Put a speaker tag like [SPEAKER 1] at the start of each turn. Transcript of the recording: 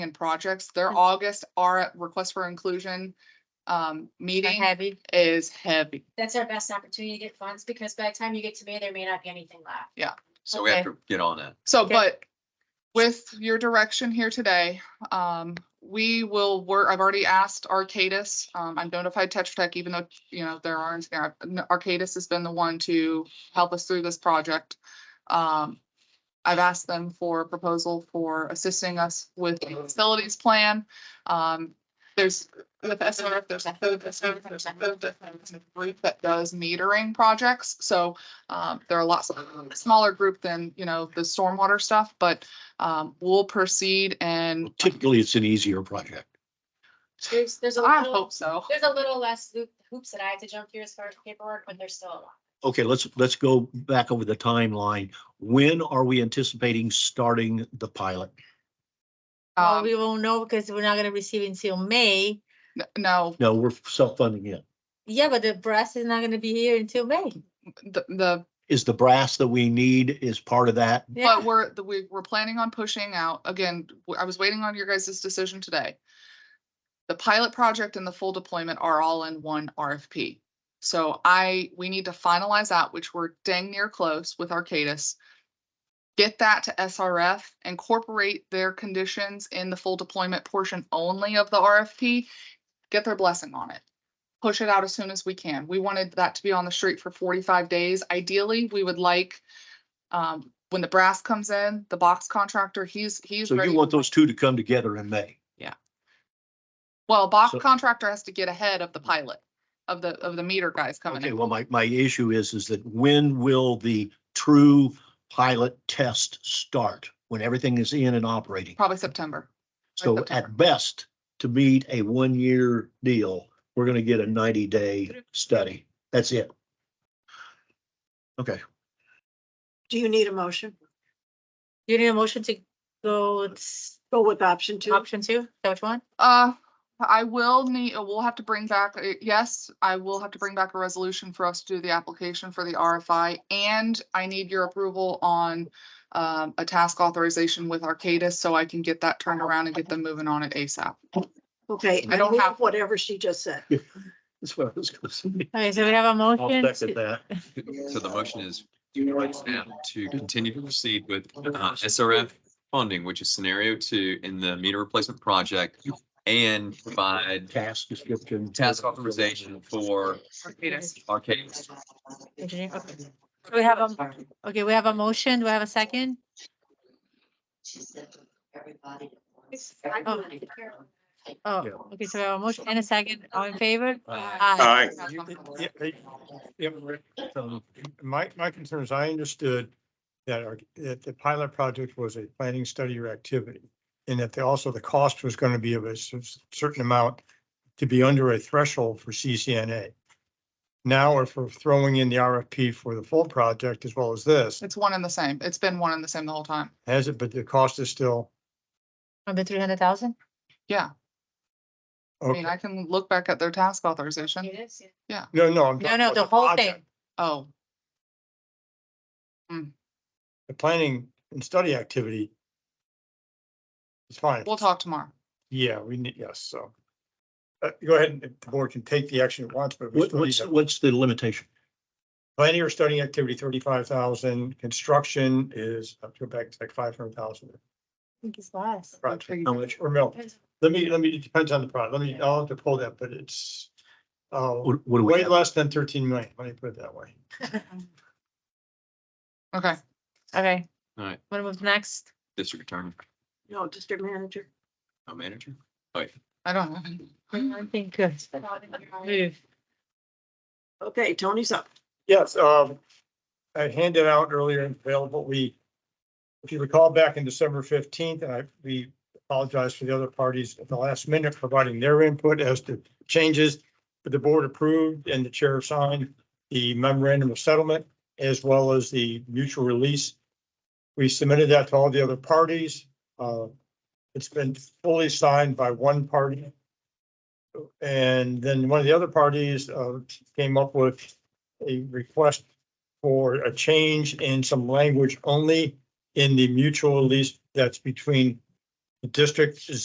[SPEAKER 1] and projects. Their
[SPEAKER 2] Mhm.
[SPEAKER 1] August our request for inclusion um meeting
[SPEAKER 2] heavy.
[SPEAKER 1] is heavy.
[SPEAKER 3] That's our best opportunity to get funds because by the time you get to May, there may not be anything left.
[SPEAKER 4] So we have
[SPEAKER 2] Okay.
[SPEAKER 4] to get on that.
[SPEAKER 1] So,
[SPEAKER 2] Okay.
[SPEAKER 1] but with your direction here today, um, we will work, I've already asked Arcadis. Um, I've notified Tetra Tech, even though, you know, there aren't, there are- Arcadis has been the one to help us through this project. Um, I've asked them for a proposal for assisting us with the facilities plan. Um, there's with SRF, there's a code, there's a code, there's a code, there's a group that does metering projects. So um, they're a lot smaller group than, you know, the stormwater stuff, but um, we'll proceed and
[SPEAKER 5] Typically, it's an easier project.
[SPEAKER 3] There's, there's a
[SPEAKER 1] I
[SPEAKER 3] little,
[SPEAKER 1] hope so.
[SPEAKER 3] there's a little less loop- hoops that I have to jump through as far as paperwork, but there's still a lot.
[SPEAKER 5] Okay, let's, let's go back over the timeline. When are we anticipating starting the pilot?
[SPEAKER 2] Well,
[SPEAKER 1] Um,
[SPEAKER 2] we won't know because we're not gonna receive until May.
[SPEAKER 1] n- no,
[SPEAKER 5] No, we're self-funding it.
[SPEAKER 2] Yeah, but the brass is not gonna be here until May.
[SPEAKER 1] the, the,
[SPEAKER 5] Is the brass that we need is part of that?
[SPEAKER 1] but
[SPEAKER 2] Yeah,
[SPEAKER 1] we're, the- we, we're planning on pushing out, again, w- I was waiting on your guys' decision today. The pilot project and the full deployment are all in one RFP. So I, we need to finalize that, which we're dang near close with Arcadis. Get that to SRF, incorporate their conditions in the full deployment portion only of the RFP, get their blessing on it. Push it out as soon as we can. We wanted that to be on the street for forty-five days. Ideally, we would like, um, when the brass comes in, the box contractor, he's, he's.
[SPEAKER 5] So you
[SPEAKER 1] ready.
[SPEAKER 5] want those two to come together in May?
[SPEAKER 1] Well, box
[SPEAKER 5] so-
[SPEAKER 1] contractor has to get ahead of the pilot, of the, of the meter guys coming
[SPEAKER 5] Okay,
[SPEAKER 1] in.
[SPEAKER 5] well, my, my issue is, is that when will the true pilot test start? When everything is in and operating?
[SPEAKER 1] Probably September.
[SPEAKER 5] So
[SPEAKER 1] September.
[SPEAKER 5] at best, to meet a one-year deal, we're gonna get a ninety-day study. That's it. Okay,
[SPEAKER 6] Do you need a motion?
[SPEAKER 2] you need a motion to go, it's
[SPEAKER 6] Go with option two.
[SPEAKER 2] option two, is that what you want?
[SPEAKER 1] Uh, I will need, uh, we'll have to bring back, uh, yes, I will have to bring back a resolution for us to do the application for the RFI. And I need your approval on um, a task authorization with Arcadis so I can get that turned around and get them moving on it ASAP.
[SPEAKER 6] Okay.
[SPEAKER 1] I don't
[SPEAKER 6] move
[SPEAKER 1] have-
[SPEAKER 6] Whatever she just said.
[SPEAKER 5] that's what I was gonna say.
[SPEAKER 2] Okay, so we have a motion. to-
[SPEAKER 5] that.
[SPEAKER 4] So the motion is right now to continue to proceed with uh, SRF funding, which is scenario two in the meter replacement project and provide
[SPEAKER 5] Task description.
[SPEAKER 4] task authorization for Arcadis.
[SPEAKER 2] engineer, okay. So We have a, okay, we have a motion. Do I have a second? Oh. Oh,
[SPEAKER 5] Yeah.
[SPEAKER 2] okay, so we have a motion and a second. All in favor?
[SPEAKER 4] uh,
[SPEAKER 2] Aye.
[SPEAKER 7] Aye.
[SPEAKER 8] You-
[SPEAKER 1] Aye.
[SPEAKER 8] yeah, they- yeah, Rick, um, My, my concern is I understood that our, that the pilot project was a planning study or activity. And that the, also the cost was going to be of a cer- certain amount to be under a threshold for CCNA. Now, if we're throwing in the RFP for the full project as well as this,
[SPEAKER 1] It's one and the same. It's been one and the same the whole time.
[SPEAKER 8] has it, but the cost is still.
[SPEAKER 2] Number three hundred thousand?
[SPEAKER 1] I mean,
[SPEAKER 8] okay.
[SPEAKER 1] I can look back at their task authorization.
[SPEAKER 3] It is, yeah.
[SPEAKER 8] No, no. I'm
[SPEAKER 2] No,
[SPEAKER 8] talking
[SPEAKER 2] no,
[SPEAKER 8] about
[SPEAKER 2] the whole
[SPEAKER 8] project.
[SPEAKER 2] thing.
[SPEAKER 1] Oh,
[SPEAKER 8] The planning and study activity. It's fine.
[SPEAKER 1] we'll talk tomorrow.
[SPEAKER 8] Yeah, we need, yes, so. Uh, go ahead, and the board can take the action it wants, but we
[SPEAKER 5] What,
[SPEAKER 8] still need
[SPEAKER 5] what's,
[SPEAKER 8] a
[SPEAKER 5] what's the limitation?
[SPEAKER 8] planning or studying activity, thirty-five thousand, construction is, I'll go back to like five hundred thousand.
[SPEAKER 2] I think it's less.
[SPEAKER 8] Project,
[SPEAKER 5] How much?
[SPEAKER 8] or no, let me, let me, it depends on the product, let me, I'll have to pull that, but it's. Uh,
[SPEAKER 5] What what do we
[SPEAKER 8] way
[SPEAKER 5] have?
[SPEAKER 8] less than thirteen million, let me put it that way.
[SPEAKER 1] Okay.
[SPEAKER 2] Okay.
[SPEAKER 4] All right.
[SPEAKER 2] Want to move next?
[SPEAKER 4] District Attorney,
[SPEAKER 6] No, district manager.
[SPEAKER 4] uh, manager.
[SPEAKER 1] I don't have any.
[SPEAKER 2] I think good. Move.
[SPEAKER 6] Okay, Tony's up.
[SPEAKER 8] Yes, um, I handed out earlier and available, we, if you recall back in December fifteenth, and I, we apologize for the other parties at the last minute providing their input as to changes that the board approved and the chair signed the memorandum of settlement as well as the mutual release. We submitted that to all the other parties. Uh, it's been fully signed by one party. And then one of the other parties, uh, came up with a request for a change in some language only in the mutual lease that's between the district